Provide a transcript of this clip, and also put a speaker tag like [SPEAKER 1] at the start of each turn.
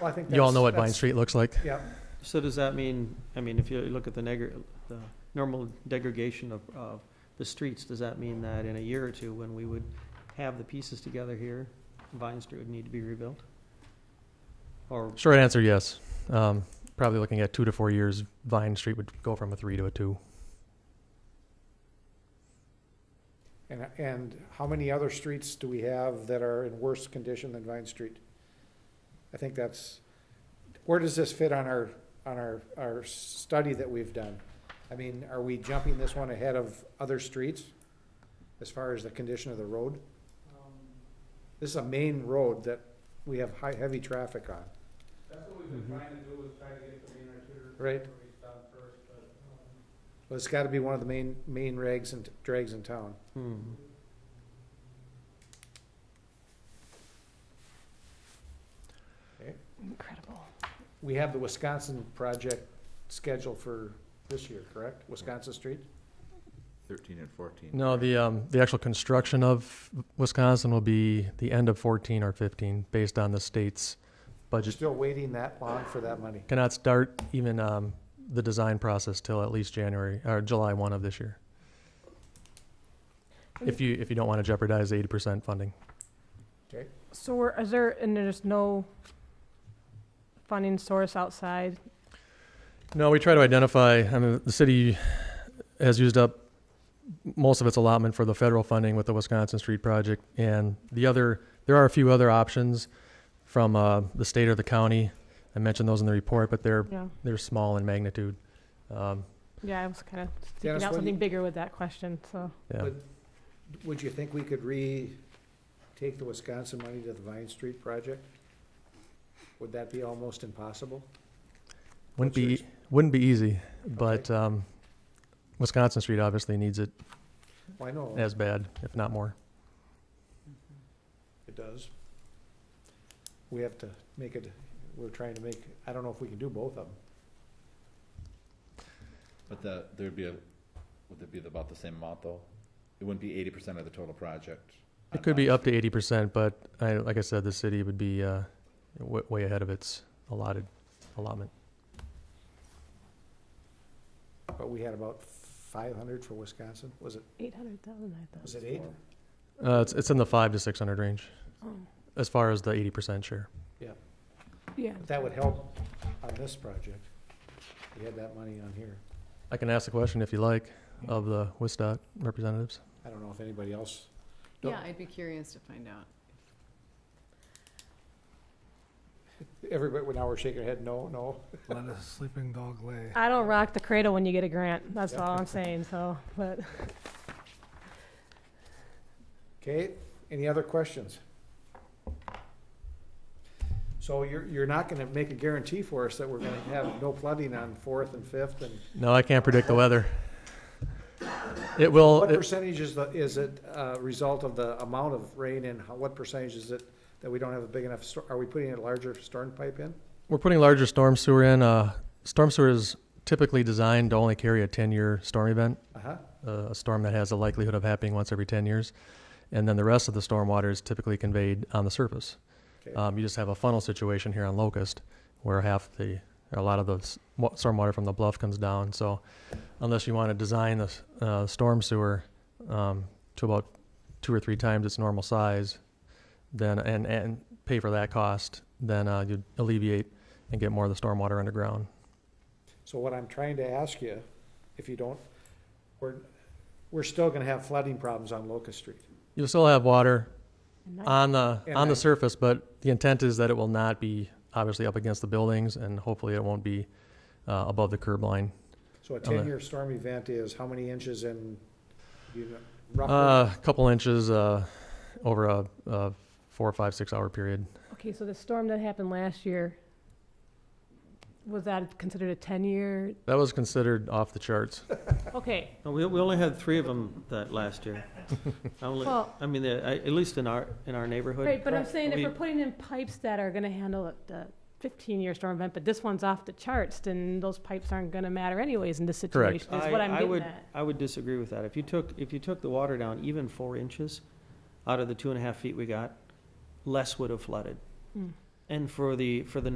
[SPEAKER 1] Well, I think
[SPEAKER 2] You all
[SPEAKER 1] that's-
[SPEAKER 2] know what Vine
[SPEAKER 1] that's-
[SPEAKER 2] Street looks like.
[SPEAKER 1] Yeah,
[SPEAKER 3] So does that mean, I mean, if you look at the negr, the normal degradation of, of the streets, does that mean that in a year or two, when we would have the pieces together here, Vine Street would need to be rebuilt? Or,
[SPEAKER 2] Short answer, yes. Um, probably looking at two to four years, Vine Street would go from a three to a two.
[SPEAKER 1] and, and how many other streets do we have that are in worse condition than Vine Street? I think that's, where does this fit on our, on our, our study that we've done? I mean, are we jumping this one ahead of other streets as far as the condition of the road?
[SPEAKER 4] Um,
[SPEAKER 1] This is a main road that we have high, heavy traffic on,
[SPEAKER 4] That's what we've been
[SPEAKER 5] Mm-hmm.
[SPEAKER 4] trying to do, is try to get the main arterial
[SPEAKER 1] right?
[SPEAKER 4] rates down first, but, um,
[SPEAKER 1] Well, it's gotta be one of the main, main rags and drags in town.
[SPEAKER 3] hmm,
[SPEAKER 6] Incredible.
[SPEAKER 1] We have the Wisconsin project scheduled for this year, correct? Wisconsin Street?
[SPEAKER 5] Thirteen and fourteen.
[SPEAKER 2] No, the um, the actual construction of Wisconsin will be the end of 14 or 15, based on the state's budget.
[SPEAKER 1] Still waiting that long for that money.
[SPEAKER 2] Cannot start even um, the design process till at least January or July 1 of this year. If you if you don't want to jeopardize 80% funding,
[SPEAKER 6] So we're, is there, and there's no funding source outside?
[SPEAKER 2] no, we try to identify. I mean, the city has used up most of its allotment for the federal funding with the Wisconsin Street project, and the other there are a few other options from uh, the state or the county. I mentioned those in the report, but they're
[SPEAKER 6] Yeah,
[SPEAKER 2] they're small in magnitude. Um,
[SPEAKER 6] yeah, I was kind of
[SPEAKER 1] Dennis,
[SPEAKER 6] thinking out
[SPEAKER 1] what do you-
[SPEAKER 6] something bigger with that question, so.
[SPEAKER 2] yeah.
[SPEAKER 1] Would, would you think we could re-take the Wisconsin money to the Vine Street project? Would that be almost impossible?
[SPEAKER 2] Wouldn't
[SPEAKER 1] What's your
[SPEAKER 2] be
[SPEAKER 1] ex-
[SPEAKER 2] wouldn't be easy, but um, Wisconsin Street obviously needs it
[SPEAKER 1] Why no?
[SPEAKER 2] as bad, if not more.
[SPEAKER 1] It does. We have to make it, we're trying to make, I don't know if we can do both of them.
[SPEAKER 5] But the, there'd be a, would there be about the same amount though? It wouldn't be eighty percent of the total project.
[SPEAKER 2] It could be up to eighty percent, but I, like I said, the city would be uh, w- way ahead of its allotted allotment.
[SPEAKER 1] But we had about five hundred for Wisconsin, was it,
[SPEAKER 6] Eight hundred thousand, I thought.
[SPEAKER 1] was it eight?
[SPEAKER 2] Uh, it's it's in the five to six hundred range
[SPEAKER 6] Oh,
[SPEAKER 2] as far as the eighty percent share.
[SPEAKER 6] Yeah.
[SPEAKER 1] But That would help on this project. We had that money on here.
[SPEAKER 2] I can ask the question if you like of the Wistock representatives.
[SPEAKER 1] I don't know if anybody else,
[SPEAKER 7] Yeah, I'd be curious to find out.
[SPEAKER 1] everybody, now we're shaking our head, no, no.
[SPEAKER 4] Let a sleeping dog lay.
[SPEAKER 6] I don't rock the cradle when you get a grant, that's
[SPEAKER 1] Yeah.
[SPEAKER 6] all I'm saying, so, but.
[SPEAKER 1] Okay, any other questions? So you're, you're not gonna make a guarantee for us that we're gonna have no flooding on Fourth and Fifth and
[SPEAKER 2] No, I can't predict the weather. It will.
[SPEAKER 1] what
[SPEAKER 2] It,
[SPEAKER 1] percentage is the, is it a result of the amount of rain and how, what percentage is it that we don't have a big enough, stor- are we putting a larger storm pipe in?
[SPEAKER 2] we're putting larger storm sewer in. Uh, storm sewer is typically designed to only carry a ten-year storm event.
[SPEAKER 1] Uh-huh,
[SPEAKER 2] uh, a a storm that has a likelihood of happening once every 10 years. And then the rest of the storm water is typically conveyed on the surface.
[SPEAKER 1] okay.
[SPEAKER 2] Um, you just have a funnel situation here on Locust where half the, or a lot of the s- wa- storm water from the bluff comes down. So unless you want to design the s- uh, storm sewer um, to about two or three times its normal size, then and, and pay for that cost, then uh, you'd alleviate and get more of the storm water underground.
[SPEAKER 1] So what I'm trying to ask you, if you don't, we're, we're still gonna have flooding problems on Locust Street.
[SPEAKER 2] You'll still have water, on the
[SPEAKER 1] And
[SPEAKER 2] on the
[SPEAKER 1] then-
[SPEAKER 2] surface, but the intent is that it will not be obviously up against the buildings, and hopefully it won't be uh, above the curb line.
[SPEAKER 1] So a
[SPEAKER 2] the-
[SPEAKER 1] ten-year storm event is how many inches in, you know,
[SPEAKER 2] A
[SPEAKER 1] roughly?
[SPEAKER 2] Uh, couple inches uh, over a, a four or five six hour period.
[SPEAKER 6] Okay, so the storm that happened last year, was that considered a ten-year?
[SPEAKER 2] That was considered off the charts.
[SPEAKER 6] Okay,
[SPEAKER 3] no, we, we only had three of them that last year. I only,
[SPEAKER 6] Well-
[SPEAKER 3] I mean, the- I- at least in our, in our neighborhood.
[SPEAKER 6] Right, but I'm saying if
[SPEAKER 3] we-
[SPEAKER 6] we're putting in pipes that are gonna handle it, the fifteen-year storm event, but this one's off the charts, then those pipes aren't gonna matter anyways in this
[SPEAKER 2] Correct.
[SPEAKER 6] situation, is what
[SPEAKER 3] I-
[SPEAKER 6] I'm
[SPEAKER 3] I
[SPEAKER 6] getting
[SPEAKER 3] would-
[SPEAKER 6] at.
[SPEAKER 3] I would disagree with that. If you took, if you took the water down even four inches out of the two and a half feet we got, less would have flooded.
[SPEAKER 6] Hmm.
[SPEAKER 3] And for the, for the